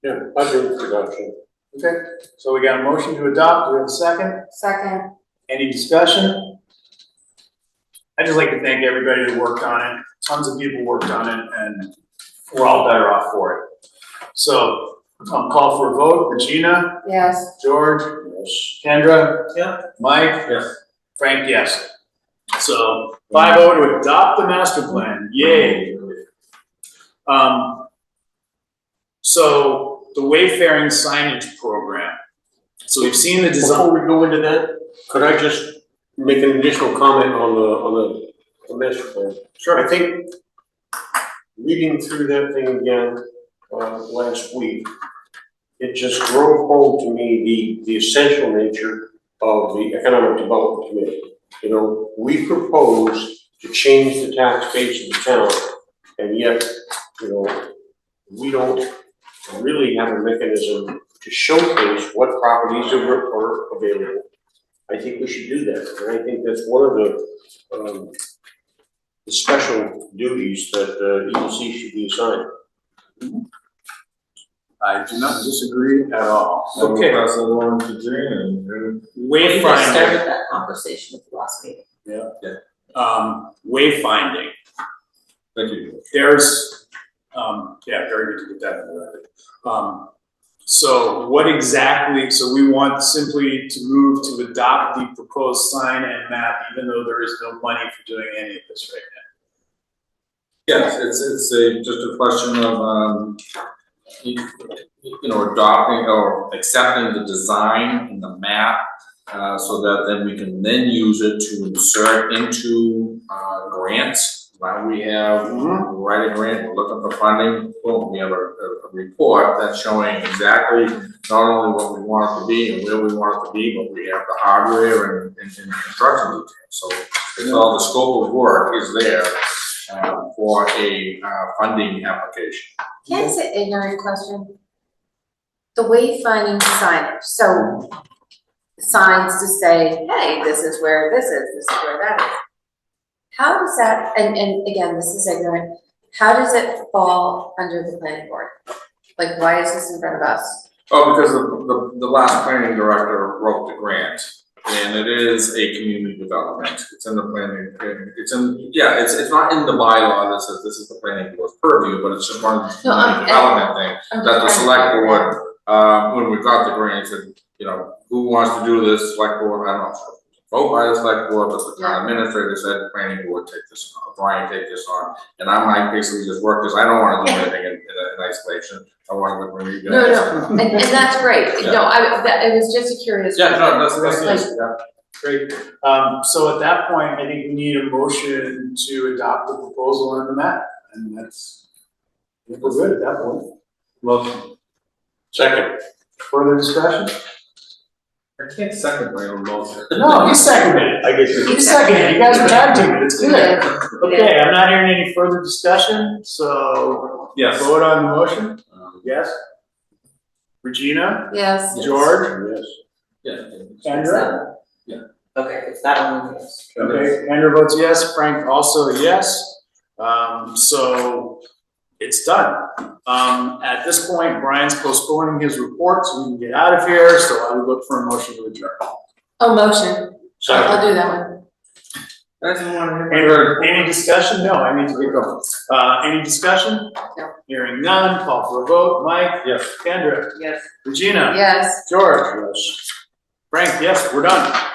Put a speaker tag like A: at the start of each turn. A: Yeah, I give the adoption.
B: Okay, so we got a motion to adopt, do we have a second?
C: Second,
B: Any discussion? I'd just like to thank everybody that worked on it, tons of people worked on it, and we're all better off for it. So, I'll call for a vote, Regina,
C: yes,
B: George, Kendra? Yeah. Mike?
A: Yes.
B: Frank, yes. So, five oh to adopt the master plan, yay. Um, so, the wayfaring signage program. So we've seen the design.
A: Before we go into that, could I just make an additional comment on the, on the, the master plan? Sure. I think reading through that thing again, uh, last week, it just drove home to me the, the essential nature of the Economic Development Committee. You know, we propose to change the tax base of the town, and yet, you know, we don't really have a mechanism to showcase what properties are, are available. I think we should do that, and I think that's one of the, um, the special duties that, uh, EDC should be assigned.
B: I do not disagree at all.
D: I'm gonna
B: Okay,
D: Pass that along to Jan, and
E: We just
B: wayfinding.
E: started that conversation at the last meeting.
B: um, wayfinding.
D: thank you.
B: There's, um, yeah, very good to get that in the record. Um, so what exactly, so we want simply to move to adopt the proposed sign and map, even though there is no money for doing any of this right
D: Yes, it's, it's a, just a question of, um, you, you know, adopting or accepting the design in the map, uh, so that then we can then use it to insert into, uh, grants. Now we have,
B: Mhm.
D: write a grant, we're looking for funding, boom, we have a, a a report that's showing exactly not only what we want it to be and where we want it to be, but we have the hardware and, and, and construction details. So it's all, the scope of work is there, uh, for a, uh, funding application.
C: can I say ignorant question? The wayfinding signage, so signs to say, hey, this is where this is, this is where that is. How does that, and, and again, this is ignorant, how does it fall under the planning board? Like, why is this in front of us?
D: Oh, because the, the, the last planning director wrote the grant, and it is a community development, it's in the planning, it's in, yeah, it's, it's not in the bylaw that says this is the planning board's purview, but it's just one of the
C: No, I- I-
D: community development thing.
C: I'm
D: that the
C: just
D: select
C: trying to-
D: board, uh, when we got the grant, said, you know, who wants to do this, select board, I don't know. Vote by the select board, but the town administrator said, planning board, take this on, Brian, take this on, and I'm like, basically just work, cause I don't wanna do anything in, in isolation, I wanna bring you
C: No,
D: guys.
C: And, and that's great, no, I, that, it was just a curious.
D: Yeah, no, that's, that's,
C: Like,
D: that's, yeah.
B: now. Great, um, so at that point, I think we need a motion to adopt the proposal and the map, and that's, I think we're good at that point.
D: Well,
A: Second,
B: Further discussion?
D: I can't second my own motion.
B: No, you seconded it.
A: I guess
B: You seconded it, you guys are tag teaming, it's good.
C: Yeah.
B: Okay, I'm not hearing any further discussion, so.
D: Yes.
B: Vote on the motion?
D: Um,
B: Yes. Regina?
C: Yes,
D: Yes.
B: George?
A: yes.
D: Yeah.
B: Kendra?
E: Okay, it's that one, yes.
B: Okay, Kendra votes yes, Frank also a yes. Um, so it's done. Um, at this point, Brian's postponing his report, so we can get out of here, so I would look for a motion to adjourn.
C: oh, motion,
A: Second.
C: I'll do that one.
D: I just wanna hear-
B: Any, any discussion? No, I need to get going. Uh, any discussion?
C: No.
B: Hearing none, call for a vote. Mike?
D: Yes.
B: Kendra?
E: Yes.
B: Regina?
C: Yes.
B: George? Frank, yes, we're done.